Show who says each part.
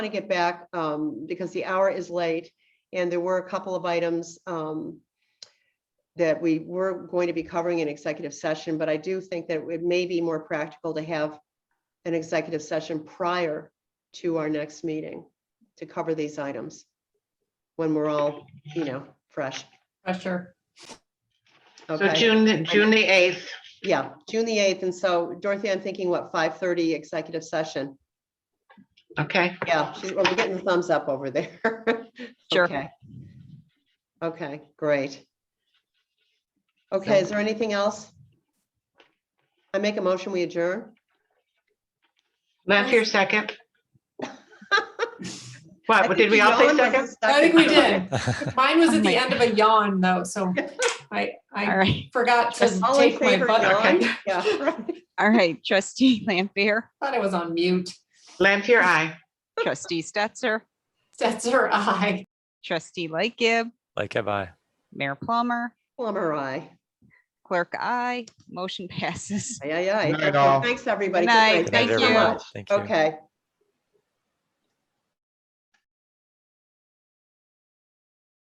Speaker 1: to get back um, because the hour is late and there were a couple of items um, that we were going to be covering in executive session, but I do think that it may be more practical to have an executive session prior to our next meeting to cover these items when we're all, you know, fresh.
Speaker 2: pressure.
Speaker 3: So
Speaker 1: Okay,
Speaker 3: June, the- June the 8th,
Speaker 1: yeah, June the 8th. And so Dorothy, I'm thinking what, 5:30 executive session?
Speaker 3: okay,
Speaker 1: Yeah, she's, well, we're getting the thumbs up over there.
Speaker 4: Sure.
Speaker 1: Okay. Okay, great. Okay, is there anything else? I make a motion, we adjourn?
Speaker 3: Lanfear, second.
Speaker 1: I
Speaker 3: What,
Speaker 1: think
Speaker 3: Uh, did we all say
Speaker 1: yawn was
Speaker 3: second?
Speaker 1: the
Speaker 2: I think we
Speaker 1: second.
Speaker 2: did. Mine was at
Speaker 4: Oh my
Speaker 2: the end of a yawn though, so I,
Speaker 4: All
Speaker 2: I
Speaker 4: right,
Speaker 2: forgot to
Speaker 1: All in
Speaker 2: take my
Speaker 1: favor,
Speaker 2: butt.
Speaker 1: yawn?
Speaker 2: I
Speaker 1: Yeah,
Speaker 4: all right. Trustee Lampier,
Speaker 2: Thought I was on mute.
Speaker 3: Lanfear, aye.
Speaker 4: trustee Stetser,
Speaker 2: Stetser, aye.
Speaker 4: trustee Lightgib,
Speaker 5: Like have I.
Speaker 4: Mayor Plummer,
Speaker 1: Plummer, aye.
Speaker 4: clerk I, motion passes.
Speaker 1: Aye, aye, aye.
Speaker 3: Night,
Speaker 1: Excellent.
Speaker 3: all.
Speaker 1: Thanks, everybody.
Speaker 4: Night,
Speaker 1: Good
Speaker 5: Good night,
Speaker 4: Thank
Speaker 1: Thanks so
Speaker 5: everyone.
Speaker 1: much.
Speaker 5: Thank you.
Speaker 1: Okay.